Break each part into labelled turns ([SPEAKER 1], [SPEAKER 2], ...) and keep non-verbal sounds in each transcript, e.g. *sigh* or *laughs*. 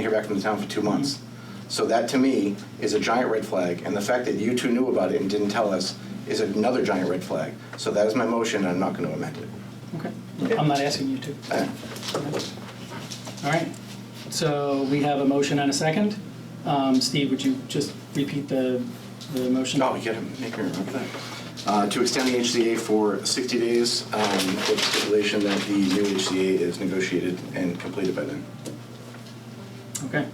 [SPEAKER 1] hear back from the town for two months. So that, to me, is a giant red flag, and the fact that you two knew about it and didn't tell us is another giant red flag. So that is my motion, and I'm not going to amend it.
[SPEAKER 2] Okay, I'm not asking you to.
[SPEAKER 1] Uh,
[SPEAKER 2] All right, so we have a motion and a second. Um, Steve, would you just repeat the, the motion?
[SPEAKER 1] No, you gotta make me remember that. Uh, To extend the HCA for 60 days, um, with stipulation that the new HCA is negotiated and completed by then.
[SPEAKER 2] Okay.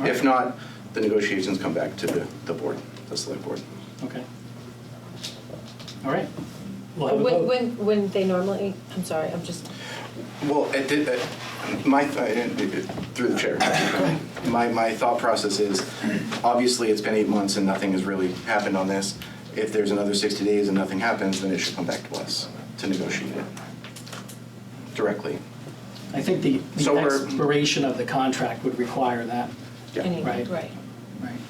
[SPEAKER 2] All
[SPEAKER 1] If
[SPEAKER 2] right.
[SPEAKER 1] not, the negotiations come back to the the board, the select board.
[SPEAKER 2] Okay. All right, we'll have a
[SPEAKER 3] When,
[SPEAKER 2] vote.
[SPEAKER 3] when, when they normally, I'm sorry, I'm just,
[SPEAKER 1] Well, it did, uh, my, th- uh, through the chair, my, my thought process is, obviously, it's been eight months and nothing has really happened on this. If there's another 60 days and nothing happens, then it should come back to us to negotiate it directly.
[SPEAKER 2] I think the,
[SPEAKER 1] So
[SPEAKER 2] the
[SPEAKER 1] we're-
[SPEAKER 2] expiration of the contract would require that,
[SPEAKER 1] Yeah.
[SPEAKER 3] anyway,
[SPEAKER 2] Right.
[SPEAKER 3] right.
[SPEAKER 2] right?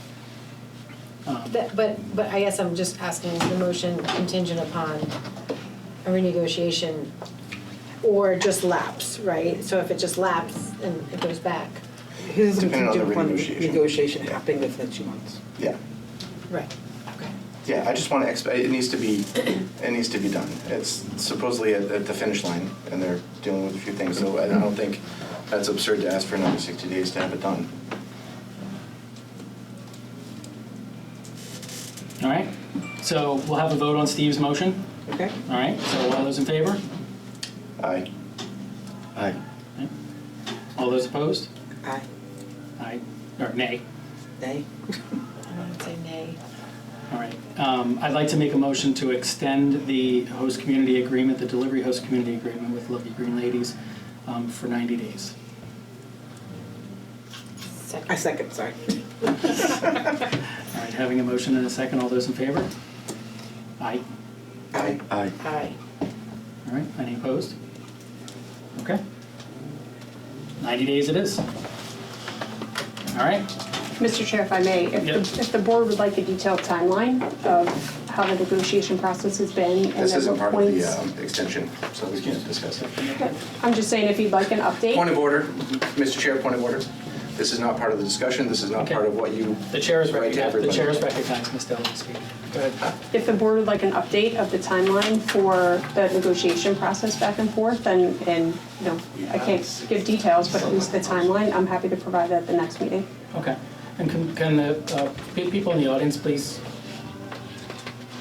[SPEAKER 2] Um,
[SPEAKER 3] But, but, but I guess I'm just asking, is the motion contingent upon a renegotiation or just lapse, right? So if it just lapses and it goes back,
[SPEAKER 4] His is
[SPEAKER 1] Depending on the
[SPEAKER 4] contingent upon
[SPEAKER 1] renegotiation.
[SPEAKER 4] negotiation happening within two months.
[SPEAKER 1] Yeah.
[SPEAKER 3] right, okay.
[SPEAKER 1] Yeah, I just want to expedite, it needs to be, it needs to be done. It's supposedly at, at the finish line, and they're dealing with a few things, so I don't think that's absurd to ask for another sixty days to have it done.
[SPEAKER 2] Um, All right, so we'll have a vote on Steve's motion.
[SPEAKER 4] Okay?
[SPEAKER 2] All right, so all those in favor?
[SPEAKER 1] Aye. Aye.
[SPEAKER 2] All those opposed?
[SPEAKER 4] Aye.
[SPEAKER 2] Aye, or nay?
[SPEAKER 4] Nay?
[SPEAKER 3] I would say nay.
[SPEAKER 2] All right. Um, I'd like to make a motion to extend the host community agreement, the delivery host community agreement with Lovely Green Ladies um, for 90 days.
[SPEAKER 4] I
[SPEAKER 3] Second.
[SPEAKER 4] second, sorry.
[SPEAKER 2] All right, having a motion and a second, all those in favor? Aye.
[SPEAKER 1] Aye. Aye.
[SPEAKER 3] Aye.
[SPEAKER 2] All right, any opposed? Okay. 90 days it is. All right,
[SPEAKER 5] Mr. Chair, if I may,
[SPEAKER 2] Yep.
[SPEAKER 5] if the, if the board would like a detailed timeline of how the negotiation process has been and
[SPEAKER 1] This
[SPEAKER 5] at
[SPEAKER 1] isn't
[SPEAKER 5] what
[SPEAKER 1] part of the,
[SPEAKER 5] points.
[SPEAKER 1] um, extension, so we can't discuss it.
[SPEAKER 5] I'm just saying, if you'd like an update.
[SPEAKER 1] Point of order, Mr. Chair, point of order. This is not part of the discussion, this is not
[SPEAKER 2] Okay.
[SPEAKER 1] part of what you.
[SPEAKER 2] the chair is
[SPEAKER 1] write to
[SPEAKER 2] recognized, the
[SPEAKER 1] everybody.
[SPEAKER 2] chair is recognized, Ms. Dillon, speak. Go ahead.
[SPEAKER 5] If the board would like an update of the timeline for the negotiation process back and forth, and, and, you know, I can't give details, but at least the timeline, I'm happy to provide that at the next meeting.
[SPEAKER 2] Okay, and can, can the, uh, pe- people in the audience please?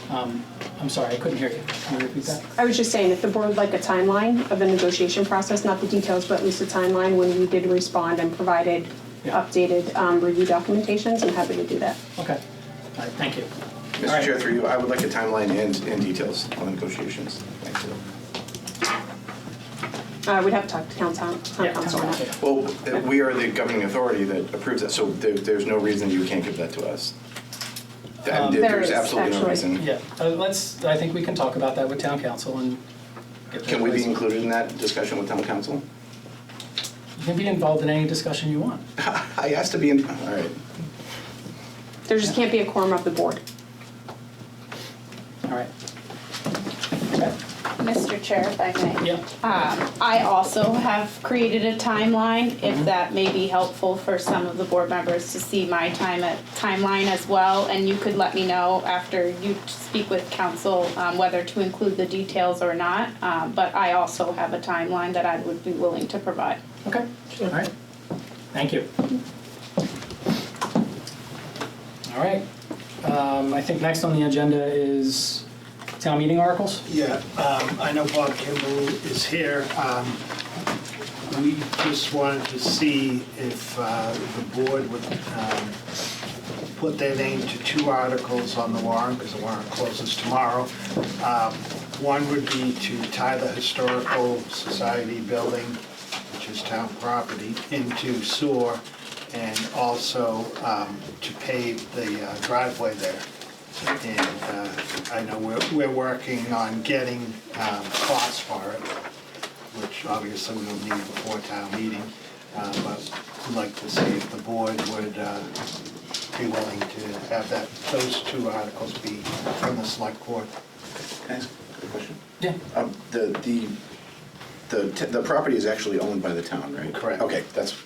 [SPEAKER 2] Um, I'm sorry, I couldn't hear you. Can you repeat that?
[SPEAKER 5] I was just saying, if the board would like a timeline of the negotiation process, not the details, but at least a timeline when we did respond and provided
[SPEAKER 2] Yeah.
[SPEAKER 5] updated um, review documentations, I'm happy to do that.
[SPEAKER 2] Okay, all right, thank you. All
[SPEAKER 1] Mr.
[SPEAKER 2] right.
[SPEAKER 1] Chair, through you, I would like a timeline and, and details on the negotiations. Thank you.
[SPEAKER 5] Uh, we'd have to talk to town town town
[SPEAKER 2] Yeah,
[SPEAKER 5] council on
[SPEAKER 2] okay.
[SPEAKER 5] that.
[SPEAKER 1] Well, uh, we are the governing authority that approves that, so there, there's no reason you can't give that to us. That-
[SPEAKER 2] Um,
[SPEAKER 5] There
[SPEAKER 1] There's
[SPEAKER 5] is,
[SPEAKER 1] absolutely no
[SPEAKER 5] actually.
[SPEAKER 1] reason.
[SPEAKER 2] Yeah, uh, let's, I think we can talk about that with town council and. get
[SPEAKER 1] Can we be
[SPEAKER 2] those-
[SPEAKER 1] included in that discussion with town council? *laughs*
[SPEAKER 2] You can be involved in any discussion you want.
[SPEAKER 1] I asked to be in, all right.
[SPEAKER 5] There just can't be a quorum of the board.
[SPEAKER 2] All right,
[SPEAKER 6] Mr. Chair, if I may.
[SPEAKER 2] yeah,
[SPEAKER 6] Um, I also have created a timeline, if that may be helpful for some of the board members to see my time at, timeline as well. And you could let me know after you speak with council, um, whether to include the details or not. Um, but I also have a timeline that I would be willing to provide.
[SPEAKER 2] okay, all right, thank you. All right, um, I think next on the agenda is town meeting articles.
[SPEAKER 7] Yeah, um, I know Bob Kimball is here. Um, We just wanted to see if uh, the board would um, put their name to two articles on the warrant, because the warrant closes tomorrow. Um, One would be to tie the Historical Society building, which is town property, into sewer, and also um, to pave the uh, driveway there. And uh, I know we're, we're working on getting um, costs for it, which obviously we'll need before town meeting. Uh, But I'd like to see if the board would uh, be willing to have that, those two articles be from the select board.
[SPEAKER 1] Can I ask a question?
[SPEAKER 2] Yeah.
[SPEAKER 1] Um, The, the, the t- the property is actually owned by the town, right?
[SPEAKER 7] Correct.
[SPEAKER 1] Okay, that's,